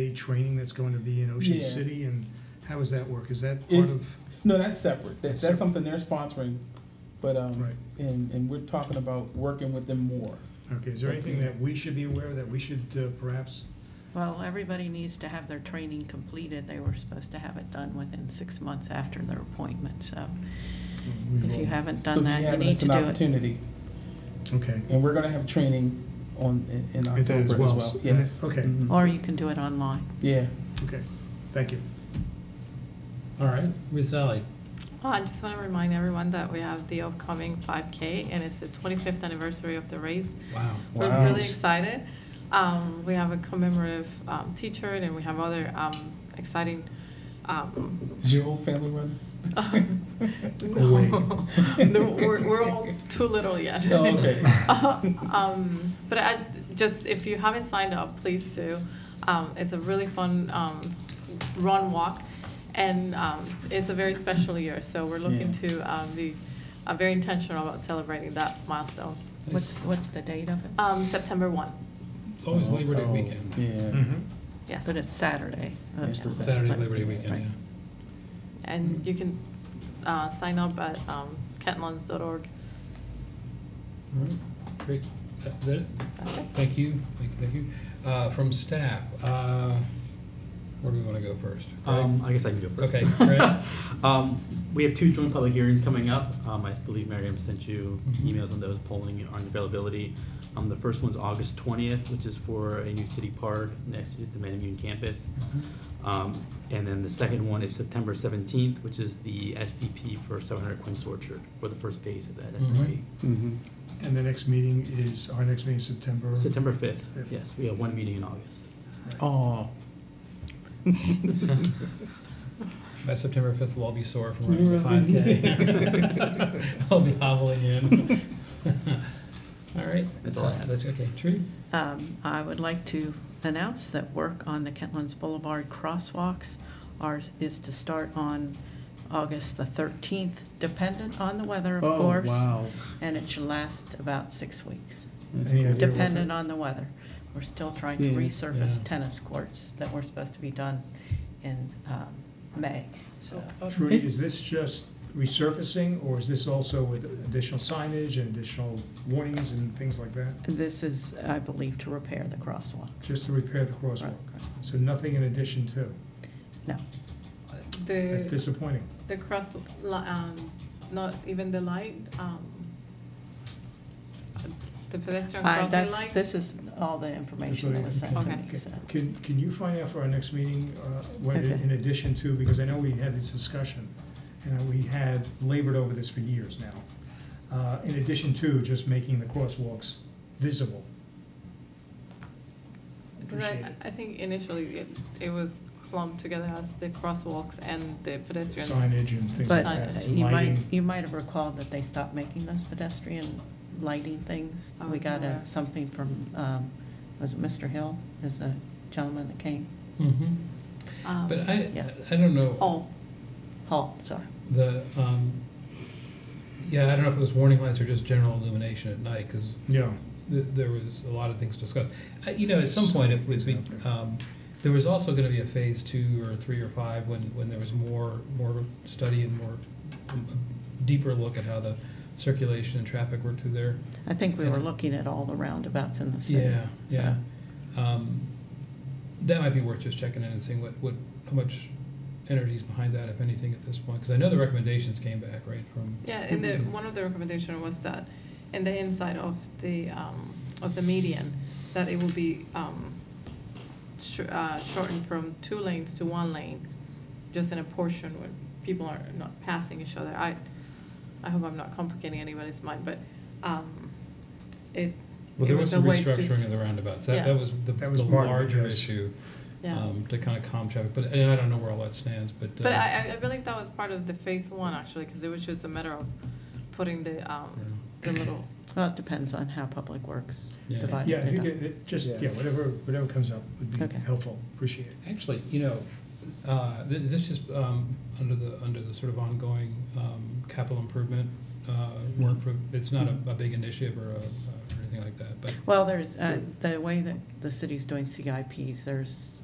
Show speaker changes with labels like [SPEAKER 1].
[SPEAKER 1] day training that's going to be in Ocean
[SPEAKER 2] Yeah.
[SPEAKER 1] City, and how does that work? Is that part
[SPEAKER 2] It's-
[SPEAKER 1] of,
[SPEAKER 2] No, that's separate.
[SPEAKER 1] That's
[SPEAKER 2] That's, that's
[SPEAKER 1] separate.
[SPEAKER 2] something they're sponsoring, but, um,
[SPEAKER 1] Right.
[SPEAKER 2] and, and we're talking about working with them more.
[SPEAKER 1] okay, is there anything
[SPEAKER 2] Yeah.
[SPEAKER 1] that we should be aware of, that we should uh, perhaps?
[SPEAKER 3] Well, everybody needs to have their training completed. They were supposed to have it done within six months after their appointment, so
[SPEAKER 4] Mm-hmm.
[SPEAKER 3] if you haven't
[SPEAKER 2] So
[SPEAKER 3] done
[SPEAKER 2] if
[SPEAKER 3] that, you
[SPEAKER 2] have it,
[SPEAKER 3] need
[SPEAKER 2] it's
[SPEAKER 3] to
[SPEAKER 2] an
[SPEAKER 3] do it.
[SPEAKER 2] Opportunity,
[SPEAKER 1] Okay.
[SPEAKER 2] and we're gonna have training on, in- in
[SPEAKER 1] At that
[SPEAKER 2] October
[SPEAKER 1] as
[SPEAKER 2] as
[SPEAKER 1] well.
[SPEAKER 2] well,
[SPEAKER 1] And it-
[SPEAKER 2] yes.
[SPEAKER 1] okay.
[SPEAKER 2] Mhm.
[SPEAKER 3] Or you can do it online.
[SPEAKER 2] Yeah.
[SPEAKER 1] Okay, thank you.
[SPEAKER 4] All right, Ms. Alley.
[SPEAKER 5] Well, Oh, I just want to remind everyone that we have the upcoming 5K, and it's the 25th anniversary of the race.
[SPEAKER 4] Wow.
[SPEAKER 2] Wow.
[SPEAKER 5] We're really excited. Um, We have a commemorative um, T-shirt, and we have other um, exciting, um,
[SPEAKER 2] Is your whole family running?
[SPEAKER 5] no, The- we're we're all too little yet.
[SPEAKER 2] Oh, okay.
[SPEAKER 5] Um, But I, just, if you haven't signed up, please do. Um, It's a really fun um, run walk, and um, it's a very special year, so we're looking
[SPEAKER 2] Yeah.
[SPEAKER 5] to um, be uh, very intentional about celebrating that milestone.
[SPEAKER 3] What's, what's the date of it?
[SPEAKER 5] Um, September 1,
[SPEAKER 4] It's always Labor Day
[SPEAKER 2] Oh,
[SPEAKER 4] weekend.
[SPEAKER 2] Yeah.
[SPEAKER 1] Mm-hmm.
[SPEAKER 5] yes.
[SPEAKER 3] But it's Saturday.
[SPEAKER 2] It's the
[SPEAKER 4] Saturday, Labor Day
[SPEAKER 3] Right.
[SPEAKER 4] weekend,
[SPEAKER 5] And you can uh, sign up at um, kentlands.org.
[SPEAKER 4] yeah. All right, Great. That's it?
[SPEAKER 5] That's it.
[SPEAKER 4] Thank you, thank you, thank you. Uh, From staff, uh, where do we want to go first? Greg?
[SPEAKER 6] Um, I guess I can go first.
[SPEAKER 4] Okay, great.
[SPEAKER 6] Um, we have two joint public hearings coming up. Um, I believe Miriam sent you
[SPEAKER 4] Mhm.
[SPEAKER 6] emails on those polling on availability. Um, the first one's August twentieth, which is for a new city park next to the Manamun campus. Um, and then the second one is September seventeenth, which is the SDP for seven hundred Quince Orchard, or the first phase of that SDP.
[SPEAKER 4] Mm-hmm.
[SPEAKER 1] And the next meeting is, our next meeting is September?
[SPEAKER 6] September fifth,
[SPEAKER 1] Mm-hmm. Fifth.
[SPEAKER 6] yes, we have one meeting in August.
[SPEAKER 2] Oh.
[SPEAKER 4] By September 5th, we'll all be sore from
[SPEAKER 2] You
[SPEAKER 4] running the
[SPEAKER 2] really-
[SPEAKER 4] 5K. I'll be hobbling in. All right.
[SPEAKER 6] That's all I have.
[SPEAKER 4] That's okay. Tree?
[SPEAKER 3] Um, I would like to announce that work on the Kentlands Boulevard crosswalks are, is to start on August the 13th, dependent on the weather,
[SPEAKER 4] Oh,
[SPEAKER 3] of course.
[SPEAKER 1] Oh,
[SPEAKER 3] And it should last about six weeks,
[SPEAKER 1] Any idea what
[SPEAKER 3] dependent
[SPEAKER 1] the-
[SPEAKER 3] on the weather. We're still trying to
[SPEAKER 2] Yeah.
[SPEAKER 3] resurface
[SPEAKER 4] Yeah.
[SPEAKER 3] tennis courts that were supposed to be done in um, May, so.
[SPEAKER 1] Trudy, is this just resurfacing, or is this also with additional signage and additional warnings and things like that?
[SPEAKER 3] This is, I believe, to repair the crosswalk.
[SPEAKER 1] Just to repair the
[SPEAKER 3] Right.
[SPEAKER 1] crosswalk? So nothing in addition to?
[SPEAKER 3] No,
[SPEAKER 1] That's
[SPEAKER 5] The,
[SPEAKER 1] disappointing.
[SPEAKER 5] the cross, li- um, not even the light, um, the pedestrian
[SPEAKER 3] I-
[SPEAKER 5] crossing
[SPEAKER 3] that's,
[SPEAKER 5] light.
[SPEAKER 3] this is all the information that was sent to me, so.
[SPEAKER 1] Can, can you find out for our next meeting, uh, what in
[SPEAKER 3] Okay.
[SPEAKER 1] in addition to, because I know we had this discussion, and we had labored over this for years now. Uh, In addition to just making the crosswalks visible.
[SPEAKER 5] Because
[SPEAKER 1] Appreciate
[SPEAKER 5] I,
[SPEAKER 1] it.
[SPEAKER 5] I think initially it, it was clumped together as the crosswalks and the pedestrian.
[SPEAKER 1] signage and things like
[SPEAKER 3] But
[SPEAKER 1] that.
[SPEAKER 3] uh,
[SPEAKER 5] Signage.
[SPEAKER 3] you might,
[SPEAKER 1] lighting.
[SPEAKER 3] you might have recalled that they stopped making those pedestrian lighting things. We
[SPEAKER 5] Oh,
[SPEAKER 3] got a,
[SPEAKER 5] yeah.
[SPEAKER 3] something from, um, was it Mr. Hill, is the gentleman that came?
[SPEAKER 4] Mm-hmm.
[SPEAKER 5] um,
[SPEAKER 4] But I,
[SPEAKER 3] yeah.
[SPEAKER 4] I don't know.
[SPEAKER 5] Oh,
[SPEAKER 3] Hall, sorry.
[SPEAKER 4] The, um, yeah, I don't know if it was warning lights or just general illumination at night, because
[SPEAKER 1] Yeah,
[SPEAKER 4] there was a lot of things discussed. Uh, You know, at some point, if we, um, there was also gonna be a phase two or three or five, when, when there was more, more study and more, um, deeper look at how the circulation and traffic worked through there.
[SPEAKER 3] I think we were
[SPEAKER 4] Yeah.
[SPEAKER 3] looking at all the roundabouts in the city.
[SPEAKER 4] Yeah,
[SPEAKER 3] so.
[SPEAKER 4] yeah. Um, That might be worth just checking in and seeing what, what, how much energy is behind that, if anything, at this point. Because I know the recommendations came back, right, from,
[SPEAKER 5] Yeah, and the, one of the recommendation was that in the inside of the, um, of the median, that it will be, um, sh- uh, shortened from two lanes to one lane, just in a portion where people are not passing each other. I, I hope I'm not complicating anybody's mind, but, um, it,
[SPEAKER 4] well,
[SPEAKER 5] it
[SPEAKER 4] there was
[SPEAKER 5] was a
[SPEAKER 4] some
[SPEAKER 5] way to.
[SPEAKER 4] restructuring of the roundabouts. That,
[SPEAKER 5] Yeah.
[SPEAKER 4] that was the
[SPEAKER 1] That was
[SPEAKER 4] the
[SPEAKER 1] part of it,
[SPEAKER 4] larger
[SPEAKER 1] yes.
[SPEAKER 4] issue.
[SPEAKER 5] Yeah,
[SPEAKER 4] um, to kind of calm traffic, but, and I don't know where all that stands, but.
[SPEAKER 5] but
[SPEAKER 4] uh,
[SPEAKER 5] I, I- I believe that was part of the phase one, actually, because it was just a matter of putting the, um, the little
[SPEAKER 3] Well, it depends on how Public Works
[SPEAKER 4] Yeah.
[SPEAKER 3] divided
[SPEAKER 1] yeah, if
[SPEAKER 3] it
[SPEAKER 1] you
[SPEAKER 3] up.
[SPEAKER 1] get, it- just,
[SPEAKER 2] Yeah.
[SPEAKER 1] yeah, whatever, whatever comes up would be
[SPEAKER 3] Okay.
[SPEAKER 1] helpful, appreciate it.
[SPEAKER 4] Actually, you know, uh, th- is this just um, under the, under the sort of ongoing um, capital improvement uh, work for, it's not a a big initiative or a- or anything like that, but.
[SPEAKER 3] Well, there's, uh, the way that the city's doing CIPs, there's